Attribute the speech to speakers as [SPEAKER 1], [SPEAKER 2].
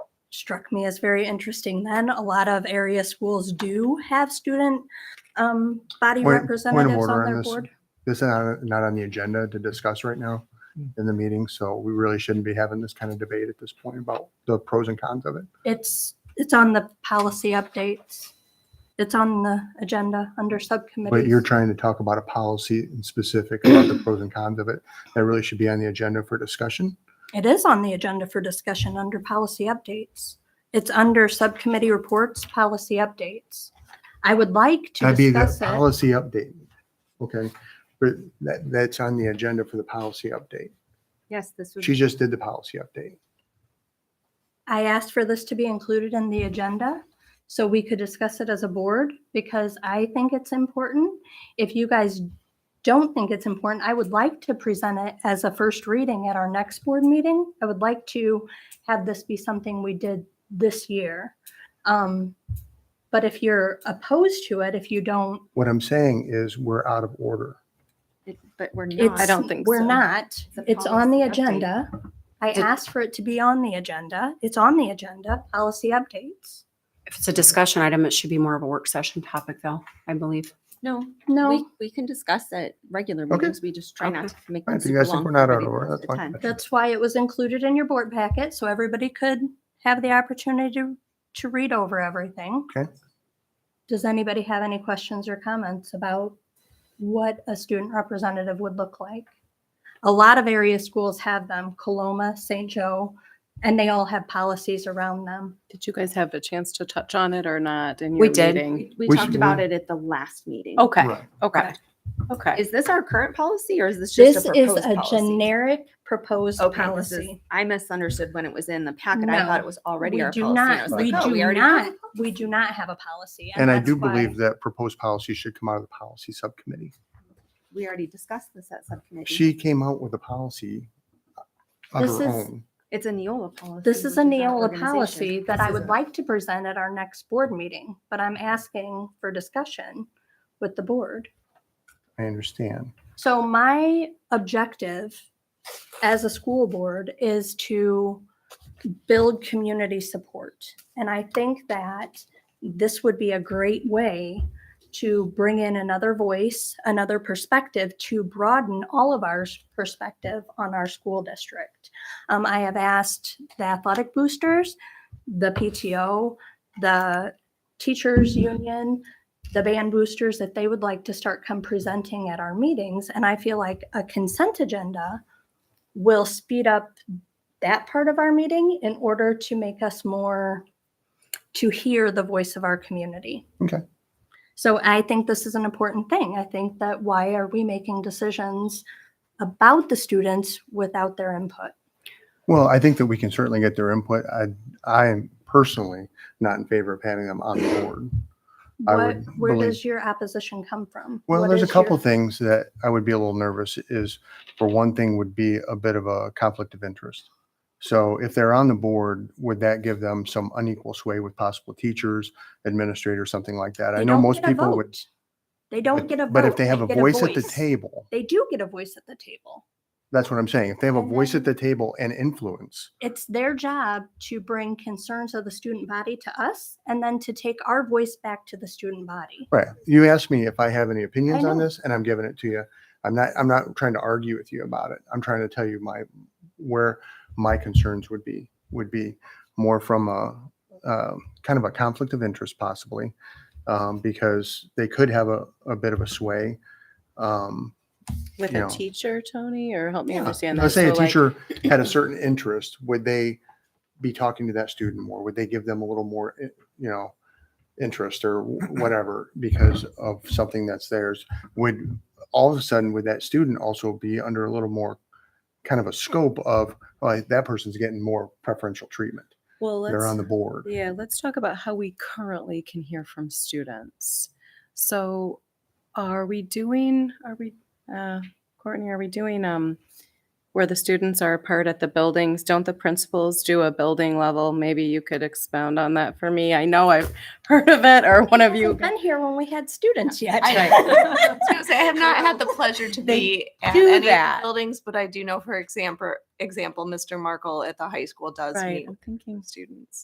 [SPEAKER 1] struck me as very interesting then. A lot of area schools do have student um, body
[SPEAKER 2] Point- point of
[SPEAKER 1] representatives
[SPEAKER 2] order
[SPEAKER 1] on
[SPEAKER 2] on
[SPEAKER 1] their
[SPEAKER 2] this.
[SPEAKER 1] board.
[SPEAKER 2] This is not, not on the agenda to discuss right now in the meeting, so we really shouldn't be having this kind of debate at this point about the pros and cons of it.
[SPEAKER 1] It's, it's on the policy updates. It's on the agenda under subcommittees.
[SPEAKER 2] But you're trying to talk about a policy in specific about the pros and cons of it. That really should be on the agenda for discussion.
[SPEAKER 1] It is on the agenda for discussion under policy updates. It's under subcommittee reports, policy updates. I would like to
[SPEAKER 2] That'd be the
[SPEAKER 1] discuss it.
[SPEAKER 2] policy update. Okay, but that, that's on the agenda for the policy update.
[SPEAKER 3] Yes, this would,
[SPEAKER 2] She just did the policy update.
[SPEAKER 1] I asked for this to be included in the agenda so we could discuss it as a board because I think it's important. If you guys don't think it's important, I would like to present it as a first reading at our next board meeting. I would like to have this be something we did this year. Um, But if you're opposed to it, if you don't
[SPEAKER 2] What I'm saying is we're out of order.
[SPEAKER 3] but we're
[SPEAKER 1] It's,
[SPEAKER 3] not.
[SPEAKER 4] I don't think
[SPEAKER 1] we're
[SPEAKER 4] so.
[SPEAKER 1] not.
[SPEAKER 3] a
[SPEAKER 1] It's on the
[SPEAKER 3] policy update.
[SPEAKER 1] agenda. I
[SPEAKER 4] Did-
[SPEAKER 1] asked for it to be on the agenda. It's on the agenda. Policy updates.
[SPEAKER 4] If it's a discussion item, it should be more of a work session topic though, I believe.
[SPEAKER 3] No, we,
[SPEAKER 1] No,
[SPEAKER 3] we can discuss at regular
[SPEAKER 2] Okay.
[SPEAKER 3] meetings. We just try not to make
[SPEAKER 2] Fine,
[SPEAKER 3] them
[SPEAKER 2] If you
[SPEAKER 3] super
[SPEAKER 2] guys think
[SPEAKER 3] long.
[SPEAKER 2] we're not
[SPEAKER 3] for
[SPEAKER 2] out of
[SPEAKER 3] everybody
[SPEAKER 2] order, that's
[SPEAKER 3] at a
[SPEAKER 2] fine.
[SPEAKER 3] time.
[SPEAKER 1] that's why it was included in your board packet so everybody could have the opportunity to, to read over everything.
[SPEAKER 2] Okay.
[SPEAKER 1] Does anybody have any questions or comments about what a student representative would look like? A lot of area schools have them, Coloma, St. Joe, and they all have policies around them.
[SPEAKER 5] Did you guys have a chance to touch on it or not in your
[SPEAKER 4] We did.
[SPEAKER 5] meeting?
[SPEAKER 3] We
[SPEAKER 2] We
[SPEAKER 3] talked
[SPEAKER 2] should-
[SPEAKER 3] about it at the last meeting.
[SPEAKER 5] Okay,
[SPEAKER 2] Right.
[SPEAKER 5] okay, okay.
[SPEAKER 3] Is this our current policy or is this just
[SPEAKER 1] This
[SPEAKER 3] a
[SPEAKER 1] is
[SPEAKER 3] proposed
[SPEAKER 1] a
[SPEAKER 3] policy?
[SPEAKER 1] generic proposed
[SPEAKER 3] Okay, this is,
[SPEAKER 1] policy.
[SPEAKER 3] I misunderstood when it was in the packet. I
[SPEAKER 1] No,
[SPEAKER 3] thought it was already
[SPEAKER 1] we
[SPEAKER 3] our
[SPEAKER 1] do
[SPEAKER 3] policy. and I
[SPEAKER 1] not.
[SPEAKER 3] was like,
[SPEAKER 1] we
[SPEAKER 3] oh,
[SPEAKER 1] do
[SPEAKER 3] already have
[SPEAKER 1] not.
[SPEAKER 3] it.
[SPEAKER 1] We do not have a policy,
[SPEAKER 2] And I
[SPEAKER 1] that's
[SPEAKER 2] do
[SPEAKER 1] why-
[SPEAKER 2] believe that proposed policy should come out of the policy subcommittee.
[SPEAKER 3] We already discussed this at subcommittee.
[SPEAKER 2] She came out with a policy uh, of
[SPEAKER 1] Mm-hmm. This
[SPEAKER 2] her
[SPEAKER 1] is-
[SPEAKER 2] own.
[SPEAKER 3] It's a Neola policy.
[SPEAKER 1] this is a
[SPEAKER 3] which our
[SPEAKER 1] Neola
[SPEAKER 3] organization.
[SPEAKER 1] policy that
[SPEAKER 3] This
[SPEAKER 1] I would
[SPEAKER 3] isn't.
[SPEAKER 1] like to present at our next board meeting, but I'm asking for discussion with the board.
[SPEAKER 2] I understand.
[SPEAKER 1] So my objective as a school board is to build community support. And I think that this would be a great way to bring in another voice, another perspective, to broaden all of our s- perspective on our school district. Um, I have asked the athletic boosters, the PTO, the teachers union, the band boosters that they would like to start come presenting at our meetings. And I feel like a consent agenda will speed up that part of our meeting in order to make us more, to hear the voice of our community.
[SPEAKER 2] Okay.
[SPEAKER 1] So I think this is an important thing. I think that why are we making decisions about the students without their input?
[SPEAKER 2] Well, I think that we can certainly get their input. I, I am personally not in favor of having them on the board. I
[SPEAKER 1] What,
[SPEAKER 2] would
[SPEAKER 1] where
[SPEAKER 2] believe-
[SPEAKER 1] does your opposition come from?
[SPEAKER 2] Well,
[SPEAKER 1] What
[SPEAKER 2] there's a
[SPEAKER 1] is your-
[SPEAKER 2] couple things that I would be a little nervous is, for one thing, would be a bit of a conflict of interest. So if they're on the board, would that give them some unequal sway with possible teachers, administrators, something like that? I
[SPEAKER 1] They
[SPEAKER 2] know
[SPEAKER 1] don't
[SPEAKER 2] most
[SPEAKER 1] get a
[SPEAKER 2] people would.
[SPEAKER 1] vote. They don't
[SPEAKER 2] but-
[SPEAKER 1] get a vote.
[SPEAKER 2] But if they have a
[SPEAKER 1] get
[SPEAKER 2] voice at the table,
[SPEAKER 1] they do get a voice at the table.
[SPEAKER 2] that's what I'm saying. If they have a
[SPEAKER 1] And
[SPEAKER 2] voice
[SPEAKER 1] then-
[SPEAKER 2] at the table and influence,
[SPEAKER 1] It's their job to bring concerns of the student body to us and then to take our voice back to the student body.
[SPEAKER 2] right? You asked me if I have any opinions on
[SPEAKER 1] know.
[SPEAKER 2] this and I'm giving it to you. I'm not, I'm not trying to argue with you about it. I'm trying to tell you my, where my concerns would be, would be more from a, uh, kind of a conflict of interest possibly, um, because they could have a, a bit of a sway. Um,
[SPEAKER 5] With
[SPEAKER 2] you
[SPEAKER 5] a
[SPEAKER 2] know.
[SPEAKER 5] teacher, Tony, or help me
[SPEAKER 2] Yeah.
[SPEAKER 5] understand that?
[SPEAKER 2] Let's Uh, say a
[SPEAKER 5] So, like,
[SPEAKER 2] teacher had a certain interest, would they be talking to that student more? Would they give them a little more, i- you know, interest or wh- whatever because of something that's theirs? Would all of a sudden, would that student also be under a little more kind of a scope of like that person's getting more preferential treatment?
[SPEAKER 5] Well,
[SPEAKER 2] They're on
[SPEAKER 5] let's,
[SPEAKER 2] the board.
[SPEAKER 5] yeah, let's talk about how we currently can hear from students. So are we doing, are we, uh, Courtney, are we doing, um, where the students are apart at the buildings? Don't the principals do a building level? Maybe you could expound on that for me. I know I've heard of it or one of you.
[SPEAKER 1] Haven't Been here when we had students yet.
[SPEAKER 6] I, I was gonna say I have not had the pleasure to
[SPEAKER 5] They
[SPEAKER 6] be at
[SPEAKER 5] do
[SPEAKER 6] any of the
[SPEAKER 5] that.
[SPEAKER 6] buildings, but I do know, for example, example, Mr. Markle at the high school does
[SPEAKER 5] Right,
[SPEAKER 6] meet
[SPEAKER 5] I'm thinking.
[SPEAKER 6] students.